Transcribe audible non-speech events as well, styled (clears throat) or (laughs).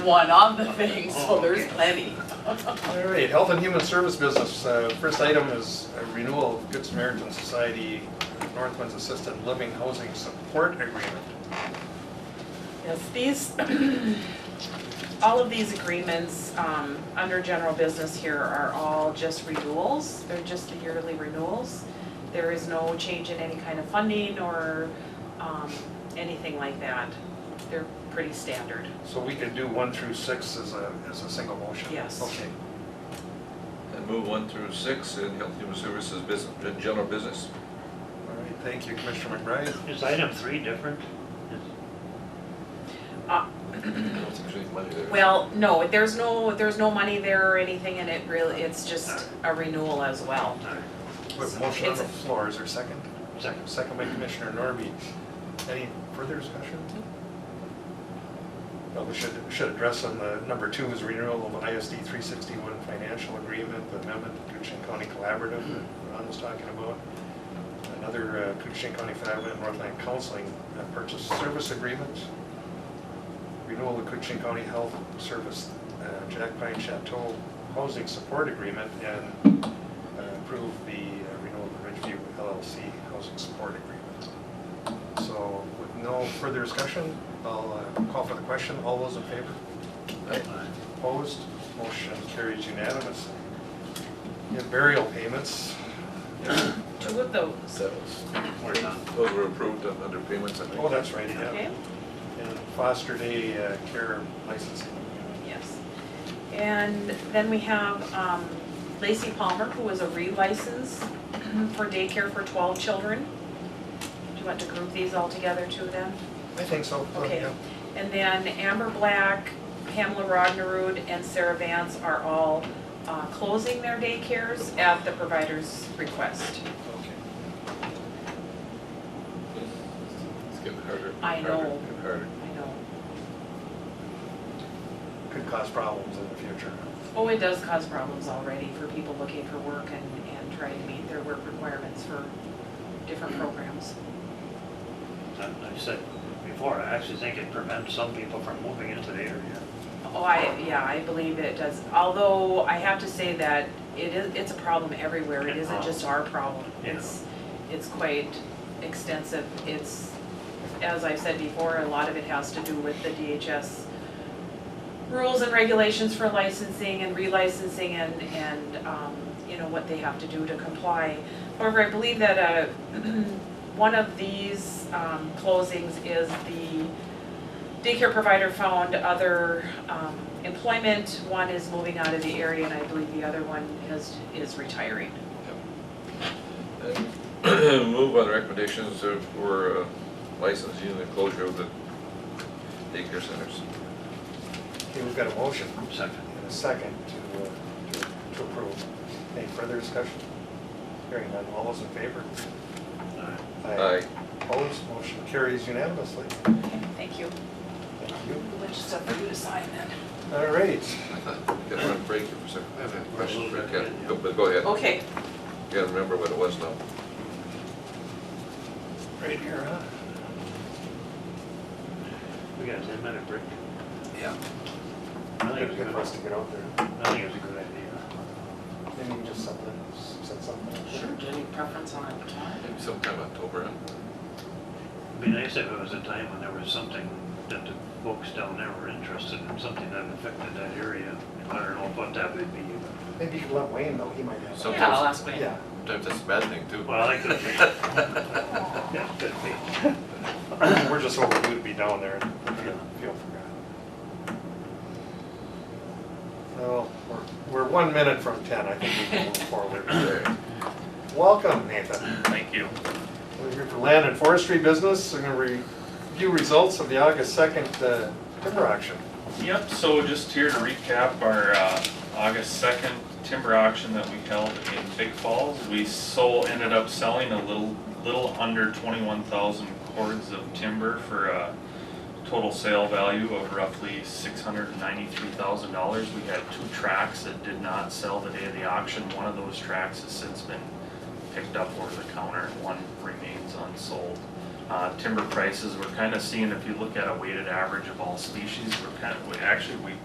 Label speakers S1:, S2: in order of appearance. S1: one on the thing, so there's plenty.
S2: All right, Health and Human Service Business. Uh, First item is a renewal of Good Samaritan Society Northwind's Assisted Living Housing Support Agreement.
S1: Yes, these, (clears throat) all of these agreements, um, under general business here are all just renewals. They're just the yearly renewals. There is no change in any kind of funding or, um, anything like that. They're pretty standard.
S2: So we could do one through six as a, as a single motion?
S1: Yes.
S2: Okay.
S3: And move one through six in Health and Human Services business, in
S1: (clears throat)
S3: general business.
S2: All right, thank you, Commissioner McBride.
S4: Is item three different? Is-
S3: I don't think there's any money there.
S1: Well, no, there's no, there's no money there or anything and it really, it's just a renewal as well.
S4: all right,
S2: We have a motion on the floor, is there a second?
S4: Second.
S2: Second by Commissioner Norby. Any further discussion? Well, we should, should address on the number two is renewal of ISD 361 financial agreement amendment, Coochin County Collaborative, that Ron was talking about. Another uh, Coochin County Family and Northland Counseling uh, Purchase Service Agreement. Renewal of Coochin County Health Service uh, Jack Pine Chateau Housing Support Agreement and uh, approve the uh, renewal of the Ridgeview LLC Housing Support Agreement. So with no further discussion, I'll uh, call for the question. All those in favor?
S4: fine.
S2: Opposed? Motion carries unanimously. We have Burial payments.
S1: Two of those,
S3: That was,
S4: We're done.
S3: those were approved on- under payments, I think.
S2: Oh, that's right,
S1: okay?
S2: yeah. And foster day uh, care licensing.
S1: Yes. And then we have um, Lacey Palmer, who is a relicense for daycare for 12 children. Do you want to group these all together too then?
S2: I think so. Oh,
S1: Okay.
S2: yeah.
S1: And then Amber Black, Pamela Rognerud, and Sarah Vance are all uh, closing their daycares at the provider's request.
S2: Okay.
S3: It's getting harder.
S1: I
S3: harder,
S1: know.
S3: and Harder.
S1: I know.
S2: Could cause problems in the future.
S1: Oh, it does cause problems already for people looking for work and, and trying to meet their work requirements for different programs.
S4: I I said before, I actually think it prevents some people from moving into the area.
S1: Oh, I, yeah, I believe it does, although I have to say that it is, it's a problem everywhere, it isn't just our problem.
S4: Yeah.
S1: It's, it's quite extensive, it's, as I've said before, a lot of it has to do with the DHS rules and regulations for licensing and relicensing and, and, um, you know, what they have to do to comply. However, I believe that, uh, (clears throat) one of these, um, closings is the daycare provider found other um, employment. One is moving out of the area, and I believe the other one has, is retiring.
S3: And (clears throat) Move on the recommendations of- for uh, licensing and the closure of the daycare centers.
S2: Okay, we've got a motion
S4: Second.
S2: and a second to, uh, to- to approve. Any further discussion? Hearing none. All those in favor?
S4: All right.
S3: Aye.
S2: Opposed? Motion carries unanimously.
S1: Thank you.
S2: Thank you.
S1: Which is up for you to sign then.
S2: All right.
S3: Got to run break here for a second.
S4: I have a
S3: Question,
S4: little bit,
S3: Ken,
S4: yeah.
S3: go- but go ahead. You
S1: Okay,
S3: gotta remember what it was now.
S2: Right here, huh?
S4: We got a ten minute break.
S3: Yeah.
S4: I think
S2: Gotta
S4: it's a
S2: get
S4: good,
S2: us to get out there.
S4: I think it's a good idea.
S2: Maybe you just something, said something.
S1: sure, do you have any preference on a time?
S3: Maybe sometime October. huh?
S4: It'd be nice if it was a time when there was something that the folks down there were interested in, something that affected that area. I don't know what that would be.
S2: Maybe you could let Wayne know, he might have.
S3: Some-
S1: Yeah, I'll ask Wayne.
S2: Yeah.
S3: Sometimes that's a bad thing too.
S4: but- Well, that could be.
S3: (laughs)
S4: That could be.
S2: (clears throat)
S4: (laughs)
S2: We're just hoping you'd be down there and feel- feel forgotten. Well, we're, we're one minute from ten, I think we can move forward. (coughs)
S3: Okay.
S2: Welcome, Nathan.
S4: Thank you.
S2: We're here for land and forestry business, we're gonna review results of the August second uh, timber auction.
S5: Yep, so just here to recap our uh, August 2nd timber auction that we held in Big Falls. We sold, ended up selling a little, little under 21,000 cords of timber for a total sale value of roughly $693,000. We had two tracks that did not sell the day of the auction. One of those tracks has since been picked up over the counter, and one remains unsold. Uh, timber prices, we're kind of seeing, if you look at a weighted average of all species, we're kind of, we actually, we